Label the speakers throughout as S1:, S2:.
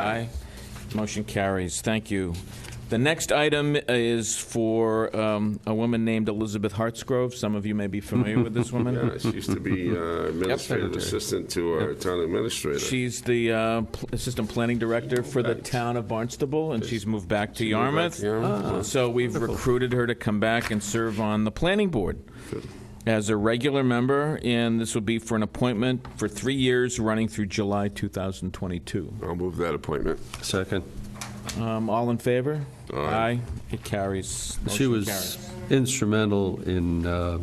S1: Aye. Motion carries. Thank you. The next item is for um, a woman named Elizabeth Hartsgrove. Some of you may be familiar with this woman.
S2: Yeah, she used to be uh, administrative
S3: Secretary.
S2: assistant to our town administrator.
S1: She's the uh, pl- Assistant Planning Director for the town of Barnstable, and she's moved back to Yarmouth.
S2: to Yarmouth,
S1: Ah. So we've recruited her to come back and serve on the Planning Board as a regular member, and this will be for an appointment for three years, running through July 2022.
S2: I'll move that appointment.
S3: Second.
S1: Um, All in favor?
S2: Aye.
S1: It carries.
S3: She
S1: Motion
S3: was
S1: carries.
S3: instrumental in uh,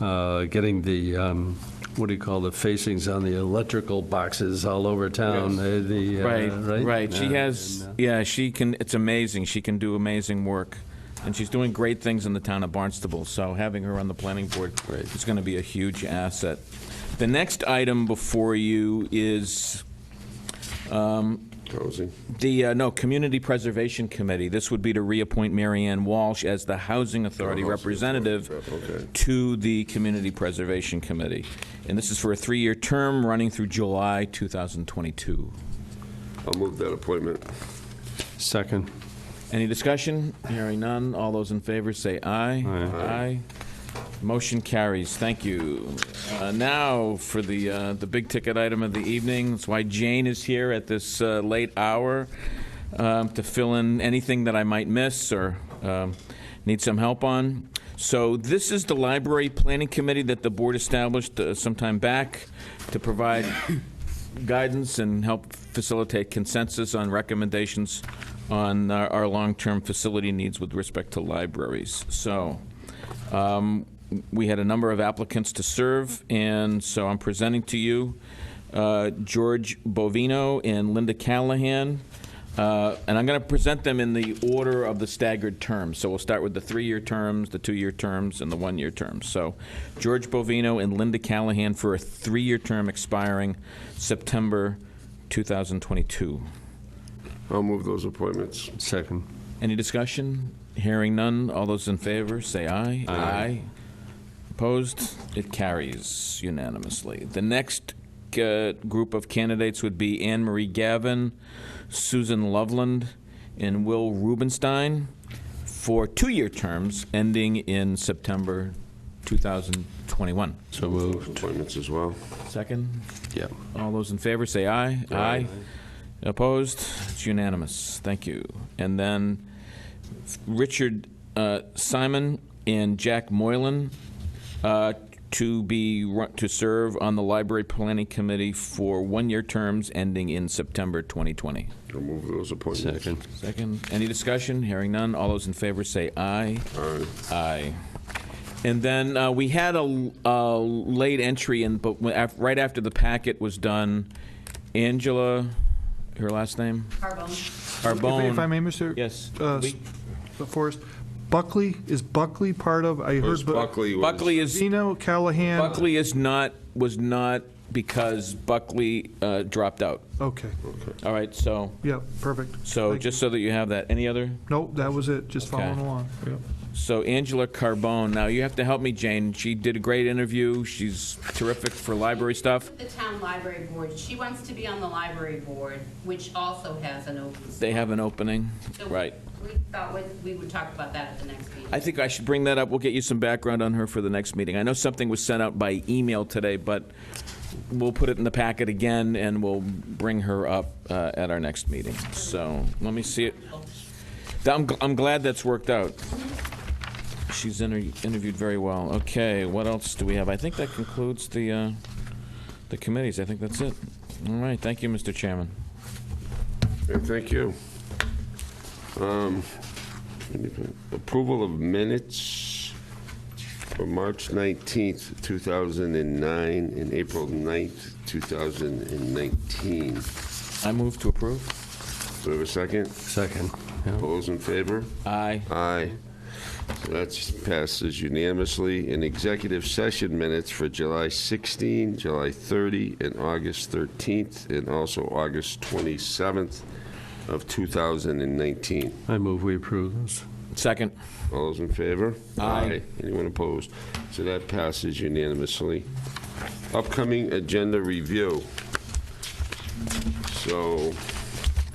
S3: uh, getting the, um, what do you call the facings on the electrical boxes all over town, uh, the, uh,
S1: Right,
S3: right?
S1: right. She
S3: Yeah. uh,
S1: has, yeah, she can, it's amazing. She can do amazing work. And she's doing great things in the town of Barnstable, so having her on the planning board is going to be a huge asset. The next item before you is
S2: Housing.
S1: the, uh, no, Community Preservation Committee. This would be to reappoint Mary Ann Walsh as the Housing Authority
S2: Oh, Housing
S1: representative
S2: Authority, okay.
S1: to the Community Preservation Committee. And this is for a three-year term running through July 2022.
S2: I'll move that appointment.
S3: Second.
S1: Any discussion? Hearing none. All those in favor say aye. Aye. Motion carries. Thank you. Uh, Now for the, uh, the big ticket item of the evening. That's why Jane is here at this uh, late hour um, to fill in anything that I might miss or um, need some help on. So this is the library planning committee that the board established uh, some time back to provide guidance and help facilitate consensus on recommendations on our, our long-term facility needs with respect to libraries. So, um, we had a number of applicants to serve, and so I'm presenting to you uh, George Bovino and Linda Callahan. Uh, And I'm going to present them in the order of the staggered terms. So we'll start with the three-year terms, the two-year terms, and the one-year terms. So George Bovino and Linda Callahan for a three-year term expiring September 2022.
S2: I'll move those appointments.
S3: Second.
S1: Any discussion? Hearing none. All those in favor, say aye. Aye. Opposed? It carries unanimously. The next uh, group of candidates would be Anne Marie Gavin, Susan Loveland, and Will Rubenstein for two-year terms ending in September 2021.
S3: So
S2: Those
S3: moved.
S2: appointments as well.
S1: Second?
S3: Yeah.
S1: All those in favor say aye. Aye. Opposed? It's unanimous. Thank you. And then Richard uh, Simon and Jack Moylan uh, to be, ru- to serve on the Library Planning Committee for one-year terms ending in September 2020.
S2: I'll move those appointments.
S3: Second.
S1: Second, any discussion? Hearing none. All those in favor say aye.
S2: Aye.
S1: Aye. And then uh, we had a, a late entry in, but when- af- right after the packet was done, Angela, her last name?
S4: Carbone.
S5: If I- If I
S1: Arbone.
S5: may, Mr.
S1: Yes.
S5: uh,
S1: We-
S5: Forrest, Buckley, is Buckley part of, I
S2: Where's
S5: heard, Bu-
S2: Buckley was-
S1: Buckley is,
S5: Zeno, Callahan?
S1: Buckley is not, was not because Buckley uh, dropped out.
S5: Okay,
S1: All right, so,
S5: yeah, perfect.
S1: so
S5: Thank
S1: just so that you have that. Any other?
S5: you. Nope, that was it, just
S1: Okay.
S5: following along. Yep.
S1: So Angela Carbone, now you have to help me, Jane. She did a great interview. She's terrific for library stuff.
S4: The town library board, she wants to be on the library board, which also has an open.
S1: They have an opening,
S4: So
S1: right.
S4: We thought we- we would talk about that at the next meeting.
S1: I think I should bring that up. We'll get you some background on her for the next meeting. I know something was sent out by email today, but we'll put it in the packet again, and we'll bring her up uh, at our next meeting. So let me see it. I'm, gl- I'm glad that's worked out. She's inter- interviewed very well. Okay, what else do we have? I think that concludes the, uh, the committees. I think that's it. All right, thank you, Mr. Chairman.
S2: And thank you. Um, Approval of minutes for March 19th, 2009, and April 9th, 2019. Do
S1: I move to approve.
S2: we have a second?
S3: Second. Yeah.
S2: All those in favor?
S1: Aye.
S2: Aye. So that passes unanimously. In executive session minutes for July 16, July 30, and August 13th, and also August 27th of 2019.
S3: I move we approve those.
S1: Second.
S2: All those in favor?
S1: Aye.
S2: Anyone opposed? So that passes unanimously. Upcoming agenda review. So